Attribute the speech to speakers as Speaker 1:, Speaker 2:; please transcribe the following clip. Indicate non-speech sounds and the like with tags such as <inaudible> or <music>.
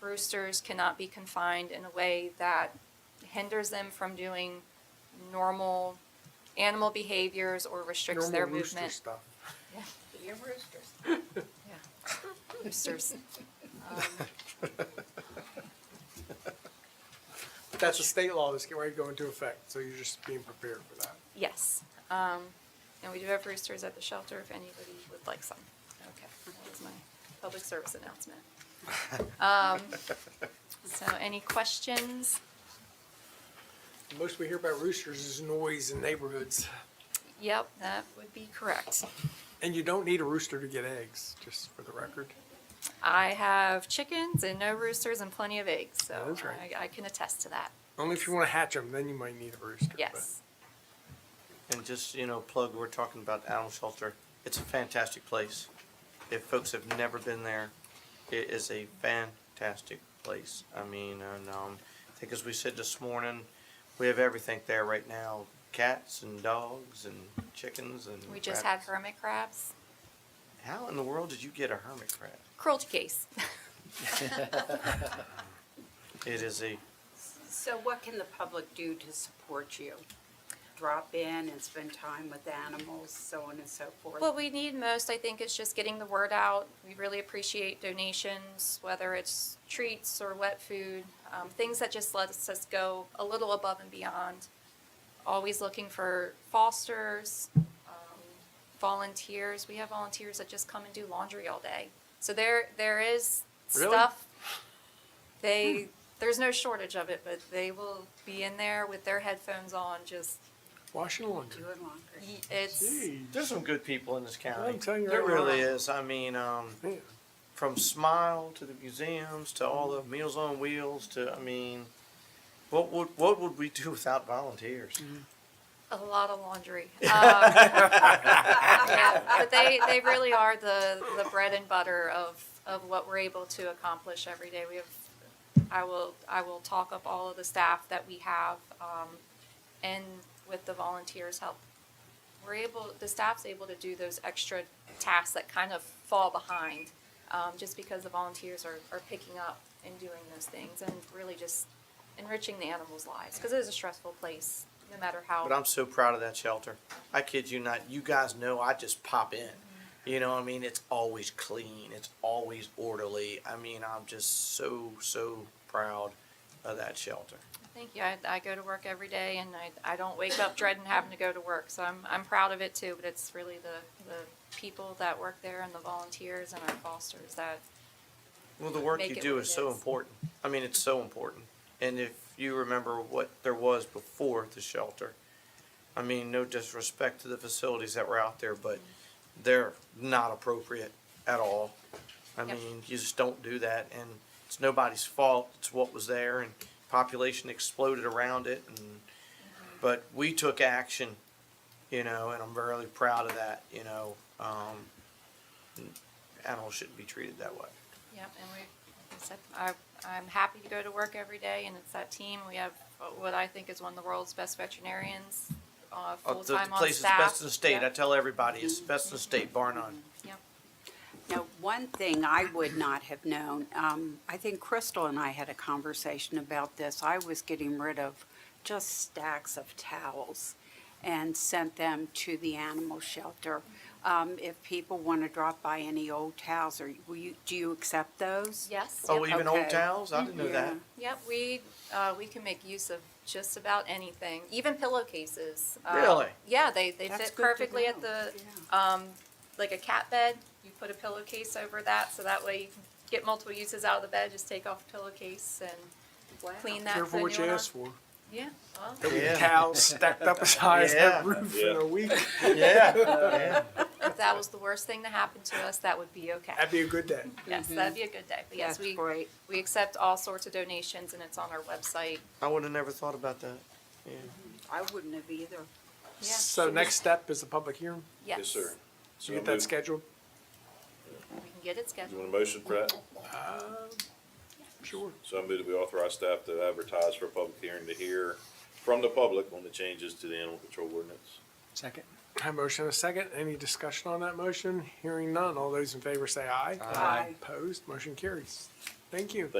Speaker 1: roosters cannot be confined in a way that hinders them from doing normal animal behaviors or restricts their
Speaker 2: Normal rooster
Speaker 1: movement.
Speaker 2: stuff.
Speaker 3: Your roosters.
Speaker 1: <laughs> Roosters.
Speaker 2: But that's a state law that's getting ready to go into effect, so you're just being prepared for that.
Speaker 1: Yes. Um, and we do have roosters at the shelter if anybody would like some. Okay, that was my public service announcement.
Speaker 2: <laughs>
Speaker 1: Um, so any questions?
Speaker 2: The most we hear about roosters is noise in neighborhoods,
Speaker 1: Yep, that would be correct.
Speaker 2: and you don't need a rooster to get eggs, just for the record.
Speaker 1: I have chickens and no roosters and plenty of eggs, so
Speaker 2: That's right.
Speaker 1: I, I can attest to that.
Speaker 2: Only if you want to hatch them, then you might need a rooster. but-
Speaker 1: Yes.
Speaker 4: And just, you know, plug, we're talking about animal shelter. It's a fantastic place. If folks have never been there, it is a fantastic place. I mean, and, um, I think as we said this morning, we have everything there right now. Cats and dogs and chickens and
Speaker 1: We just had
Speaker 4: rabbits.
Speaker 1: hermit crabs.
Speaker 4: How in the world did you get a hermit crab?
Speaker 1: Cruelty case.
Speaker 4: It is a,
Speaker 3: So what can the public do to support you? Drop in and spend time with animals, so on and so forth?
Speaker 1: What we need most, I think, is just getting the word out. We really appreciate donations, whether it's treats or wet food, um, things that just lets us go a little above and beyond. Always looking for fosters, um, volunteers. We have volunteers that just come and do laundry all day. So there, there is
Speaker 2: Really? <laughs>
Speaker 1: stuff. They, there's no shortage of it, but they will be in there with their headphones on, just,
Speaker 2: Washing laundry.
Speaker 3: Doing laundry.
Speaker 1: y- it's,
Speaker 2: Jeez.
Speaker 4: there's some good people in this county.
Speaker 2: I'm telling you
Speaker 4: There
Speaker 2: right
Speaker 4: really
Speaker 2: now.
Speaker 4: is. I mean, um,
Speaker 2: Man,
Speaker 4: from Smile to the museums to all the Meals on Wheels to I mean, what would what would we do <laughs> without volunteers?
Speaker 1: A lot of laundry. Um, <laughs> yeah, but they, they really are the, the bread and butter of, of what we're able to accomplish every day. We have, I will, I will talk up all of the staff that we have, um, and with the volunteers' help. We're able, the staff's able to do those extra tasks that kind of fall behind, um, just because the volunteers are, are picking up and doing those things and really just enriching the animals' lives, because it is a stressful place, no matter how.
Speaker 4: But I'm so proud of that shelter. I kid you not. You guys know I just pop in. You know, what I mean, it's always clean. It's always orderly. I mean, I'm just so so proud of that shelter.
Speaker 1: Thank you. I, I go to work every day and I, I don't wake up dreading having to go to work. So I'm, I'm proud of it too, but it's really the, the people that work there and the volunteers and our fosters that,
Speaker 4: Well, the work
Speaker 1: Make
Speaker 4: you
Speaker 1: it
Speaker 4: do
Speaker 1: what
Speaker 4: is
Speaker 1: it
Speaker 4: so
Speaker 1: is.
Speaker 4: important. I mean, it's so important. And if you remember what there was before the shelter, I mean, no disrespect to the facilities that were out there, but they're not appropriate at all. I
Speaker 1: Yep.
Speaker 4: mean, you just don't do that, and it's nobody's fault. It's what was there, and population exploded around it. And
Speaker 1: Mm-hmm.
Speaker 4: but we took action, you know, and I'm really proud of that. You know, um, animals shouldn't be treated that way.
Speaker 1: yep, and we, like I said, I, I'm happy to go to work every day and it's that team. We have what I think is one of the world's best veterinarians, uh,
Speaker 4: Uh, The,
Speaker 1: full-time
Speaker 4: the
Speaker 1: on
Speaker 4: place is
Speaker 1: staff.
Speaker 4: best in the state. I
Speaker 1: Yep.
Speaker 4: tell everybody, it's the best in the state, bar none.
Speaker 1: Yep.
Speaker 3: Now, one thing I would not have known, um, I think Crystal and I had a conversation about this. I was getting rid of just stacks of towels and sent them to the animal shelter. Um, if people want to drop by any old towels, or will you, do you accept those?
Speaker 1: Yes. yep.
Speaker 4: Oh, even old
Speaker 3: Okay.
Speaker 4: towels? I didn't know that.
Speaker 3: Yeah.
Speaker 1: Yep, we, uh, we can make use of just about anything, even pillowcases. Uh,
Speaker 4: Really?
Speaker 1: Yeah, they, they
Speaker 3: That's
Speaker 1: fit
Speaker 3: good to
Speaker 1: perfectly at
Speaker 3: know.
Speaker 1: the,
Speaker 3: uh,
Speaker 1: um, like a cat bed, you put a pillowcase over that, so that way you can get multiple uses out of the bed, just take off the pillowcase
Speaker 3: Wow.
Speaker 1: and clean that.
Speaker 2: Careful
Speaker 1: put a
Speaker 2: what
Speaker 1: new
Speaker 2: you
Speaker 1: one
Speaker 2: ask
Speaker 1: on.
Speaker 2: for.
Speaker 1: Yeah, well,
Speaker 2: There'll be
Speaker 4: Yeah.
Speaker 2: cows stacked up as high as
Speaker 4: Yeah.
Speaker 2: that roof in
Speaker 5: Yeah.
Speaker 2: a week.
Speaker 4: Yeah, yeah.
Speaker 1: if that was the worst thing to happen to us, that would be okay.
Speaker 2: That'd be a good day.
Speaker 1: Yes, that'd be a good day, but yes,
Speaker 3: That's
Speaker 1: we,
Speaker 3: great.
Speaker 1: we accept all sorts of donations and it's on our website.
Speaker 4: I would have never thought about that. Yeah.
Speaker 3: I wouldn't have either.
Speaker 1: Yes.
Speaker 2: So next step is a public hearing.
Speaker 1: Yes.
Speaker 5: Yes, sir.
Speaker 2: So
Speaker 5: So
Speaker 2: you get that
Speaker 5: moved.
Speaker 2: scheduled?
Speaker 1: We can get it
Speaker 5: You
Speaker 1: scheduled.
Speaker 5: want a motion for that?
Speaker 2: Sure.
Speaker 5: So I move that we authorize staff to advertise for a public hearing to hear from the public on the changes to the animal control ordinance.
Speaker 2: Second. I have a motion and a second. Any discussion on that motion? Hearing none. All those in favor say aye.
Speaker 3: Aye.
Speaker 2: Opposed? Motion carries. Thank you.